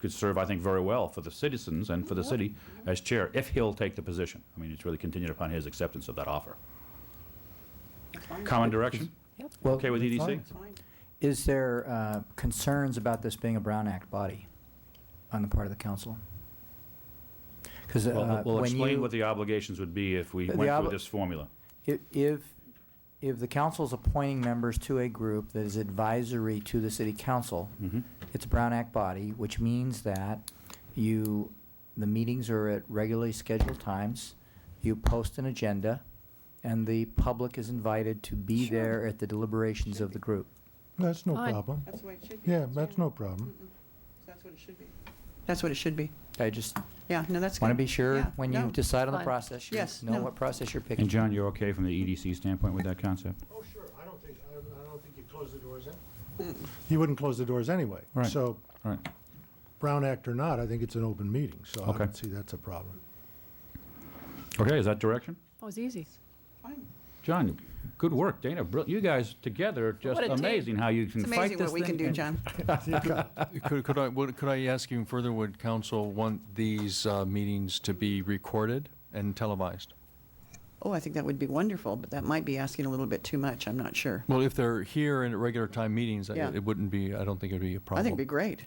could serve, I think, very well for the citizens and for the city as chair, if he'll take the position. I mean, it's really contingent upon his acceptance of that offer. Common direction? Well, Okay with E EDC? Fine. Is there uh, concerns about this being a Brown Act body on the part of the council? Because Well, We'll uh, when explain you, what the obligations would be if we The went through obli- this formula. i- if, if the council's appointing members to a group that is advisory to the city council, Mm-hmm. it's a Brown Act body, which means that you, the meetings are at regularly scheduled times, you post an agenda, and the public is invited to be Sure. there at the deliberations of the group. That's no Fine. problem. That's the way it should be. Yeah, that's no problem. Mm-mm. That's what it should be. That's what it should be. I just Yeah, no, that's good. want to be sure Yeah, when you no. decide on the Fine. process, you Yes, know no. what process you're picking. And John, you're okay from the EDC standpoint with that concept? Oh, sure. I don't think, I don't think you'd close the doors in. You wouldn't close the doors anyway. Right. So All right. Brown Act or not, I think it's an open meeting, so I Okay. don't see that's a problem. Okay, is that direction? That was Oh, easy. Fine. John, good work, Dana. brill- You guys together, are just What a team. amazing how you can It's fight this thing. amazing what we can do, and- John. Could, could I, would, could I ask you further, would council want these uh, meetings to be recorded and televised? Oh, I think that would be wonderful, but that might be asking a little bit too much. I'm not sure. Well, if they're here and at regular time meetings, I- Yeah. it wouldn't be, I don't think it'd be a I problem. think it'd be great,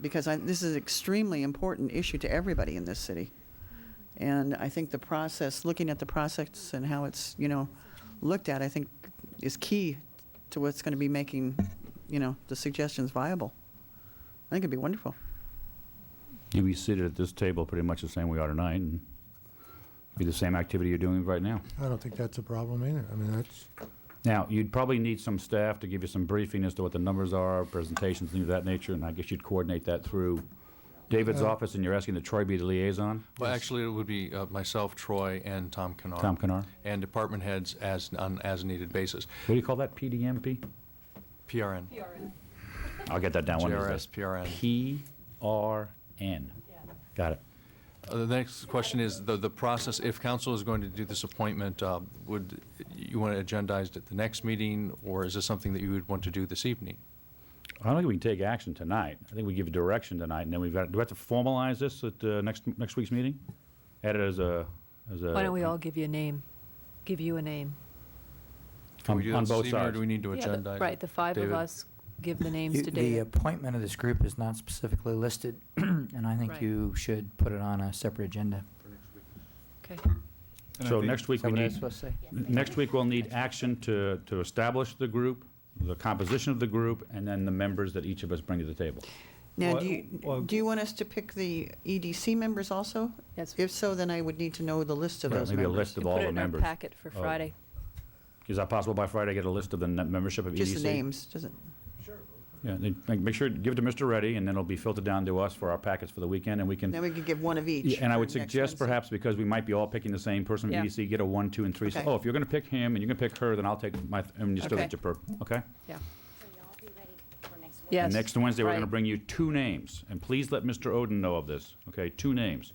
because I, this is an extremely important issue to everybody in this city. And I think the process, looking at the process and how it's, you know, looked at, I think is key to what's going to be making, you know, the suggestions viable. I think it'd be wonderful. You'd be seated at this table pretty much the same we are tonight, and be the same activity you're doing right now. I don't think that's a problem either. I mean, that's, Now, you'd probably need some staff to give you some briefing as to what the numbers are, presentations, things of that nature, and I guess you'd coordinate that through Uh, David's office, and you're asking that Troy be the liaison? Well, actually, it would be uh, myself, Troy, and Tom Kennard. Tom Kennard? And department heads as, on as-needed basis. What do you call that, PDMP? PRN. I'll get that down one of these GRS, PRN. days. PRN. Got it. Uh, The next question is, the, the process, if council is going to do this appointment, uh, would, you want it agendized at the next meeting, or is this something that you would want to do this evening? I don't think we can take action tonight. I think we give direction tonight, and then we've got, do we have to formalize this at uh, next, next week's meeting? Add it as a, as a... Why don't we all give you a name? Give you a name. Can we On- do that on this both evening, Or sides. do we need to Yeah, the- agendize? Right, the five of David? us give the names You- to The David. appointment of this group is not specifically listed, and I think Right. you should put it on a separate agenda. uh, Okay. So next Is week, that we what I need, was supposed to say? Next week, we'll need action to, to establish the group, the composition of the group, and then the members that each of us bring to the table. Now, Well, do well- you, do you want us to pick the EDC members also? Yes. If so, then I would need to know the list of Yeah, those maybe a members. list of all the Put it in our members. packet for Friday. Is that possible by Friday, get a list of the net membership of EDC? Just the names, doesn't, Yeah, then make- make sure, give it to Mr. Reddy, and then it'll be filtered down to us for our packets for the weekend, and we can, then we could give one of each. Yeah, and I for would next suggest Wednesday. perhaps, because we might be all picking the same person from Yeah. EDC, get a one, two, and three. So, Okay. Oh, if you're going to pick him, and you're going to pick her, then I'll take my, and you still Okay. get your per, okay? Yeah. So y'all be ready for next week. Yes. And next Wednesday, we're going to right. bring you two names, and please let Mr. Odin know of this, okay? Two names.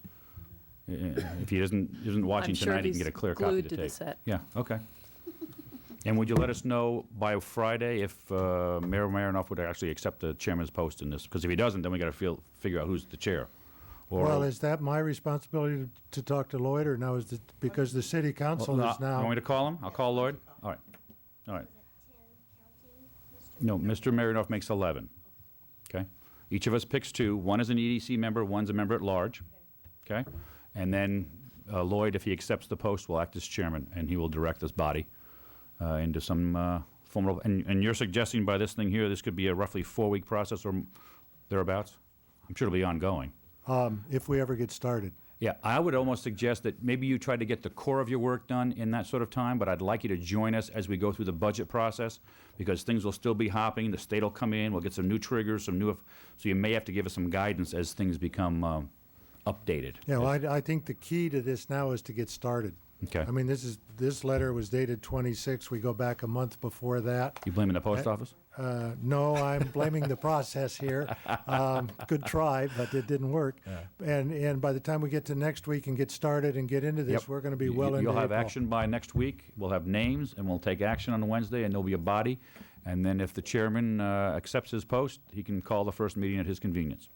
Uh, If he isn't, isn't watching sure tonight, he he's can get a clear copy glued to to the tape. set. Yeah, okay. And would you let us know by Friday if uh, Mayor Marinoff would actually accept the chairman's post in this? Because if he doesn't, then we got to feel, figure out who's the chair. Or- well, is that my responsibility to- to talk to Lloyd, or now is it, because the city Well, council no, is You want now? me to call him? I'll call Lloyd? All right, all right. No, Mr. Marinoff makes 11, okay? Each of us picks two. One is an EDC member, one's a member at large, okay? And then uh, Lloyd, if he accepts the post, will act as chairman, and he will direct this body uh, into some uh, formal, and and you're suggesting by this thing here, this could be a roughly four-week process or m- thereabouts? I'm sure it'll be ongoing. Um, If we ever get started. Yeah, I would almost suggest that maybe you try to get the core of your work done in that sort of time, but I'd like you to join us as we go through the budget process because things will still be hopping. The state will come in, we'll get some new triggers, some new, so you may have to give us some guidance as things become um, updated. Yeah, well, I, I think the key to this now is to get started. Okay. I mean, this is, this letter was dated 26, we go back a month before that. You blaming the post office? Uh, No, I'm blaming the process here. Um, Good try, but it didn't work. And, and by the time we get to next week and get started and get into this, Yep. we're going to be You- well into You'll have April. action by next week. We'll have names, and we'll take action on Wednesday, and there'll be a body. And then if the chairman uh, accepts his post, he can call the first meeting at his convenience.